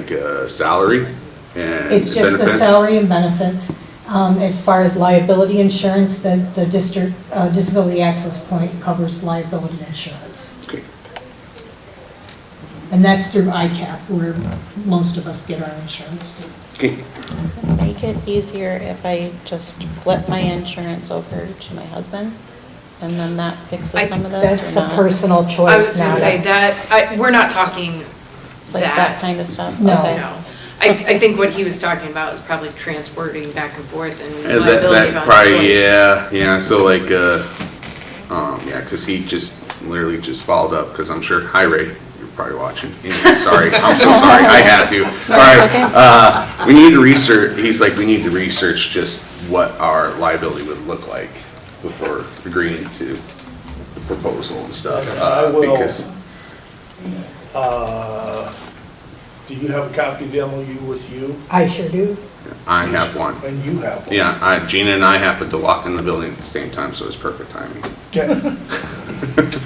like uh, salary and It's just the benefits? salary and benefits. Um, As far as liability insurance, the, the district uh, disability access point covers liability insurance. Okay. And that's through ICAP, where most of us get our insurance. through. Okay, Make it easier if I just flip my insurance over to my husband, and then that I- fixes some of That's this or a not? personal I was choice, gonna not say a, that, I, we're not talking Oh, Like that kind of stuff? No. Okay. No. I, I think what he was talking about is probably transporting back and forth and and that, liability of that unemployed. probably, yeah, yeah, so like, uh, um, yeah, cause he just literally just followed up, cause I'm sure, hi Ray, you're probably watching. Anyway, Sorry, I'm so sorry, I had to. Alright, Okay. uh, we need to research, he's like, we need to research just what our liability would look like before agreeing to the proposal and stuff. I uh, will. because- Uh, Do you have a copy of the MOU with you? I sure do. I have one. And you have one? Yeah, I, Gina and I happened to walk in the building at the same time, so it was perfect timing. Okay.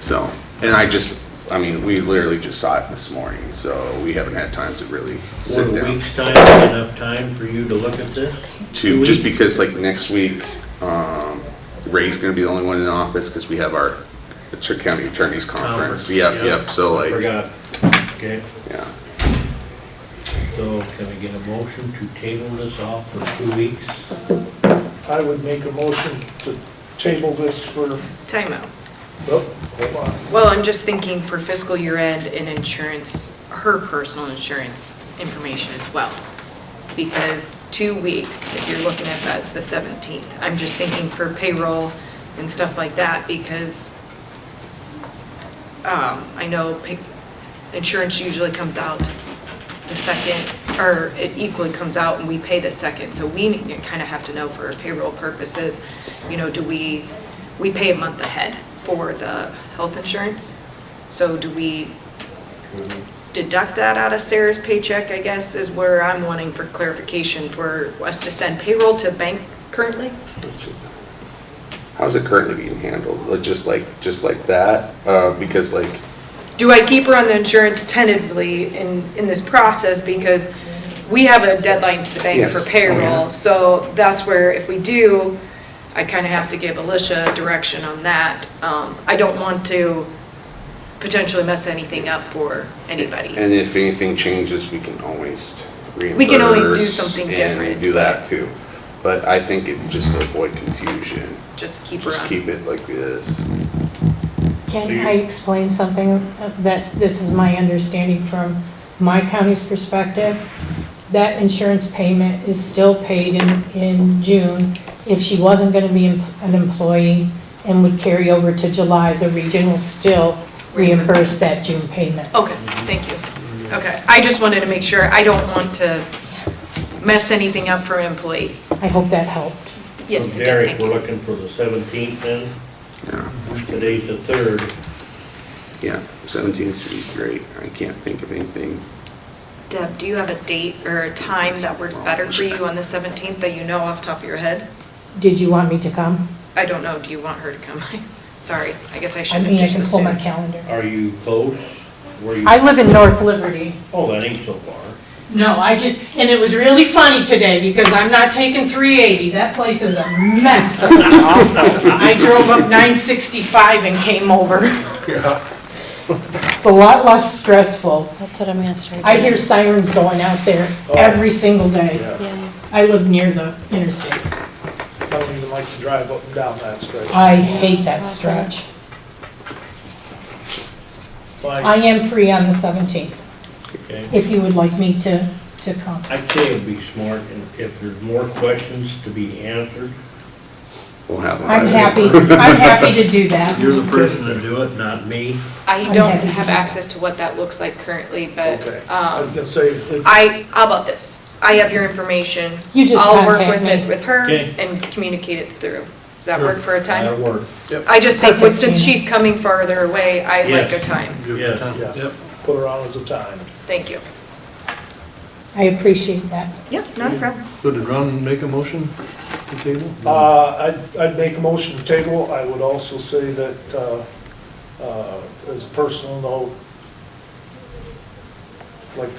So, and I just, I mean, we literally just saw it this morning, so we haven't had time to really sit Would a down. week's time be enough time for you to look at this? To, just because like next week, um, Ray's gonna be the only one in the office because we have our Tri- county attorney's conference. Conference, Yep, yeah. yep, so like, Forgot. Okay, yeah. so can I get a motion to table this off for two weeks? I would make a motion to table this for, Timeout. oh, hold on. Well, I'm just thinking for fiscal year end and insurance, her personal insurance information as well. Because two weeks, if you're looking at that, it's the 17th. I'm just thinking for payroll and stuff like that because um, I know pay- insurance usually comes out the second, or it equally comes out and we pay the second. So we kind of have to know for payroll purposes, you know, do we, we pay a month ahead for the health insurance? So do we deduct that out of Sarah's paycheck, I guess, is where I'm wanting for clarification for us to send payroll to bank currently? How's it currently being handled? Like, Just like, just like that? Uh, because like, do I keep her on the insurance tentatively in, in this process? Because we have a deadline to the bank Yes. Oh, for payroll, so that's where if we do, I kind of have to give Alicia direction on that. Um, I don't want to potentially mess anything up for anybody. and if anything changes, we can always reimburse. We can always do something different. And do that too. But I think it, just to avoid confusion, Just keep her just on. keep it like this. Can I explain something that, this is my understanding from my county's perspective? That insurance payment is still paid in, in June. If she wasn't gonna be em- an employee and would carry over to July, the region will still reimburse that June payment. Okay, thank you. Okay, I just wanted to make sure, I don't want to mess anything up for an employee. I hope that helped. Yes, So, it did, Derek, thank we're you. looking for the 17th then? Yeah. Today's the 3rd. Yeah, seventeen should be great. I can't think of anything. Deb, do you have a date or a time that works better for you on the 17th that you know off the top of your head? Did you want me to come? I don't know, do you want her to come? Sorry, I guess I I should have mean, I just can pull my assumed. calendar. Are you close? Were you? I live in North Liberty. Oh, that ain't so far. No, I just, and it was really funny today because I'm not taking 380. That place is a mess. I drove up 965 and came over. It's a lot less stressful. That's what I'm gonna start. I hear sirens going out there Oh, every single day. Yes. I live near the interstate. I don't even like to drive up and down that stretch. I hate that stretch. I Fine. am free on the 17th, Okay. if you would like me to, to come. I'd say it'd be smart and if there's more questions to be answered. We'll have. one. I'm happy, I'm happy to do that. You're the person to do it, not me. I I'm don't happy to have do that. access to what that looks like currently, but Okay. I was um, gonna say, if- I, how about this? I have your information. You just I'll work contact with me. it with her Okay. and communicate it through. Does that work for a That'll time? work. I just think, Perfect, since Gina. she's coming farther away, I like a Yes. time. Yes. yes, put her on as a time. Thank you. I appreciate that. Yep, not a problem. So did Ron make a motion to table? Uh, I'd, I'd make a motion to table. I would also say that, uh, uh, as a personal note,